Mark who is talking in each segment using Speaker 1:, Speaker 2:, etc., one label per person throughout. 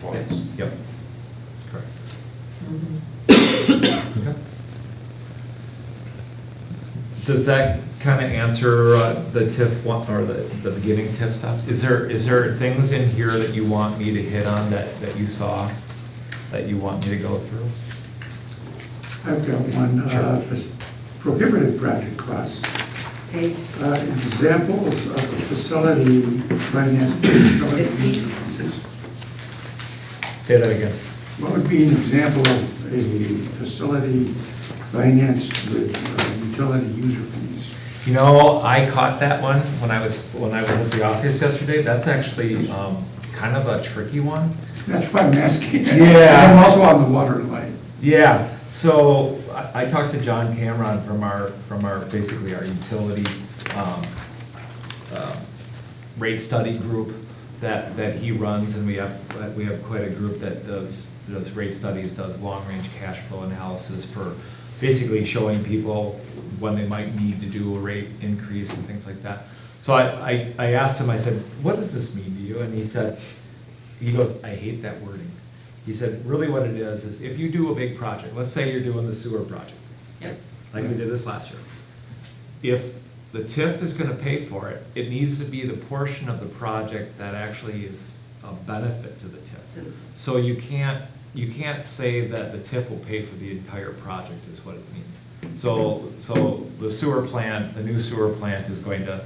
Speaker 1: voids.
Speaker 2: Yep, that's correct. Okay. Does that kind of answer uh, the TIF one, or the, the beginning TIF stuff? Is there, is there things in here that you want me to hit on that, that you saw, that you want me to go through?
Speaker 3: I've got one, uh, for s- prohibited project costs.
Speaker 4: Okay,
Speaker 3: Uh, Examples of facility finance.
Speaker 2: Say that again.
Speaker 3: What would be an example of a facility financed with uh, utility user fees?
Speaker 2: You know, I caught that one when I was, when I was at the office yesterday. That's actually um, kind of a tricky one.
Speaker 3: That's why I'm asking.
Speaker 2: Yeah.
Speaker 3: I'm also on the water line.
Speaker 2: Yeah, so I, I talked to John Cameron from our, from our, basically our utility, um, um, rate study group that, that he runs, and we have, that we have quite a group that does, does rate studies, does long-range cash flow analysis for basically showing people when they might need to do a rate increase and things like that. So I, I, I asked him, I said, what does this mean to you? And he said, he goes, I hate that wording. He said, really what it is, is if you do a big project, let's say you're doing the sewer project,
Speaker 4: yep,
Speaker 2: like we did this last year. If the TIF is gonna pay for it, it needs to be the portion of the project that actually is a benefit to the
Speaker 4: To
Speaker 2: TIF.
Speaker 4: the-
Speaker 2: So you can't, you can't say that the TIF will pay for the entire project is what it means. So, so the sewer plant, the new sewer plant is going to,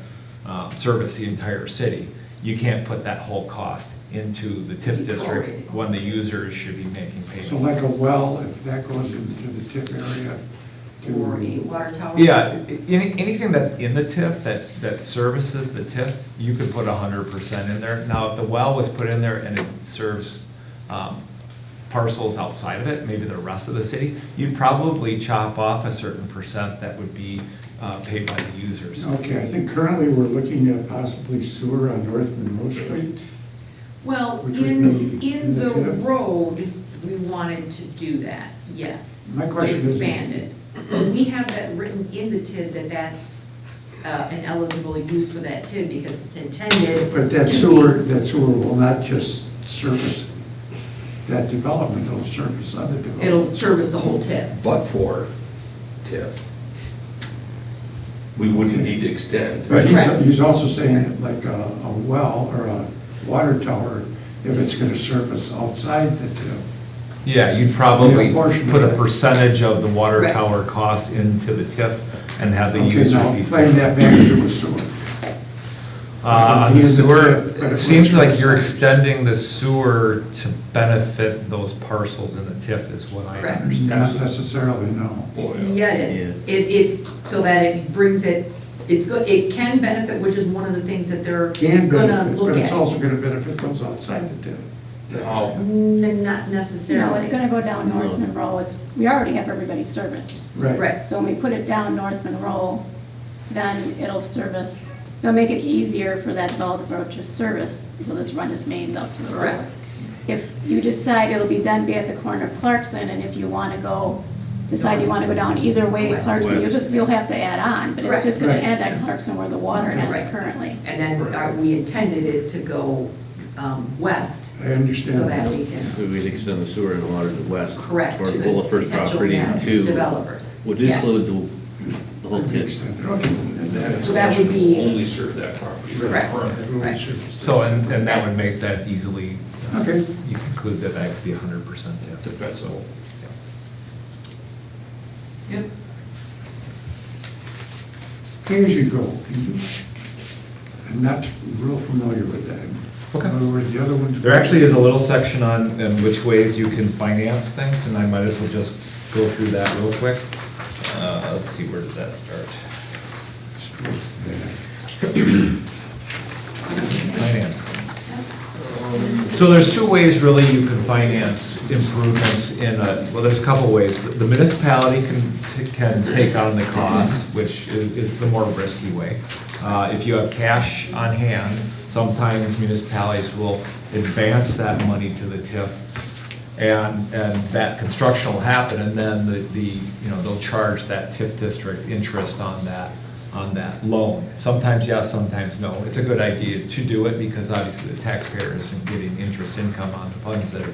Speaker 2: um, service the entire city. You can't put that whole cost into the TIF district when the users should be making payments.
Speaker 3: So like a well, if that goes into the tip area to.
Speaker 4: or a water tower.
Speaker 2: Yeah, i- any, anything that's in the TIF that, that services the TIF, you could put hundred percent in there. Now, if the well was put in there and it serves, um, parcels outside of it, maybe the rest of the city, you'd probably chop off a certain percent that would be, uh, paid by the users.
Speaker 3: Okay, I think currently we're looking at possibly sewer on North Monroe Street.
Speaker 4: Well,
Speaker 3: Which would
Speaker 4: in,
Speaker 3: be
Speaker 4: in
Speaker 3: in the
Speaker 4: the
Speaker 3: TIF?
Speaker 4: road, we wanted to do that, yes.
Speaker 3: My question is-
Speaker 4: Expanded. But we have that written in the TID that that's uh, an eligible use for that TID because it's intended.
Speaker 3: But that
Speaker 4: to be-
Speaker 3: sewer, that sewer will not just service that development, it'll service other developments.
Speaker 4: It'll service the whole TID.
Speaker 1: But for TIF, we wouldn't need to extend.
Speaker 3: But he's,
Speaker 4: Correct.
Speaker 3: he's also saying that like a, a well or a water tower, if it's gonna service outside the TIF,
Speaker 2: Yeah, you'd probably
Speaker 3: Yeah, portion of
Speaker 2: put a
Speaker 3: it.
Speaker 2: percentage of the water
Speaker 4: Right.
Speaker 2: tower cost into the TIF and have the
Speaker 3: okay,
Speaker 2: user
Speaker 3: now
Speaker 2: be.
Speaker 3: playing that back to a sewer.
Speaker 2: Uh,
Speaker 3: Be in the
Speaker 2: sewer,
Speaker 3: TIF, but it
Speaker 2: it seems
Speaker 3: works
Speaker 2: like
Speaker 3: both
Speaker 2: you're
Speaker 3: sides.
Speaker 2: extending the sewer to benefit those parcels in the TIF is what I
Speaker 4: Correct.
Speaker 2: understand.
Speaker 3: Not necessarily, no.
Speaker 4: Yeah, it is. It, it's, so that it brings it, it's good, it can benefit, which is one of the things that they're
Speaker 3: Can
Speaker 4: gonna
Speaker 3: benefit,
Speaker 4: look
Speaker 3: but it's
Speaker 4: at.
Speaker 3: also gonna benefit those outside the TIF.
Speaker 1: Oh.
Speaker 4: N- Not
Speaker 5: No, it's
Speaker 4: necessarily.
Speaker 5: gonna go down North Monroe, it's, we already have everybody serviced.
Speaker 3: Right.
Speaker 4: Right,
Speaker 5: So when we put it down North Monroe, then it'll service, they'll make it easier for that developer to service, he'll just run his mains up to the road.
Speaker 4: Correct.
Speaker 5: If you decide it'll be, then be at the corner of Clarkson, and if you wanna go, decide you wanna go down either way
Speaker 4: West.
Speaker 5: Clarkson, you'll
Speaker 1: West.
Speaker 5: just, you'll have to add on, but it's just gonna
Speaker 3: Right.
Speaker 5: end at Clarkson where the water
Speaker 4: Right.
Speaker 5: ends currently.
Speaker 4: and then uh, we intended it to go um, west,
Speaker 3: I understand.
Speaker 4: so that we can
Speaker 6: So we'd extend the sewer and water to west.
Speaker 4: correct to
Speaker 6: Toward
Speaker 4: the
Speaker 6: Willow First
Speaker 4: potential
Speaker 6: property
Speaker 4: next
Speaker 6: to.
Speaker 4: developers.
Speaker 6: Which
Speaker 4: Yes.
Speaker 6: includes the whole pitch.
Speaker 3: Extended, okay, and that-
Speaker 4: So that would be-
Speaker 1: Only serve that property.
Speaker 4: Correct. Right.
Speaker 2: So, and, and that would make that easily, uh,
Speaker 3: Okay.
Speaker 2: you conclude that that could be hundred percent TIF.
Speaker 1: Defense zone.
Speaker 2: Yep.
Speaker 3: Pay as you go, can you, I'm not real familiar with that.
Speaker 2: Okay.
Speaker 3: In other words, the other ones.
Speaker 2: There actually is a little section on, on which ways you can finance things, and I might as well just go through that real quick. Uh, let's see, where did that start? Finance. So there's two ways really you can finance improvements in a, well, there's a couple ways. The municipality can, can take on the cost, which is, is the more risky way. Uh, if you have cash on hand, sometimes municipalities will advance that money to the TIF and, and that construction will happen, and then the, the, you know, they'll charge that TIF district interest on that, on that loan. Sometimes yes, sometimes no. It's a good idea to do it because obviously the taxpayer isn't getting interest income on the funds that are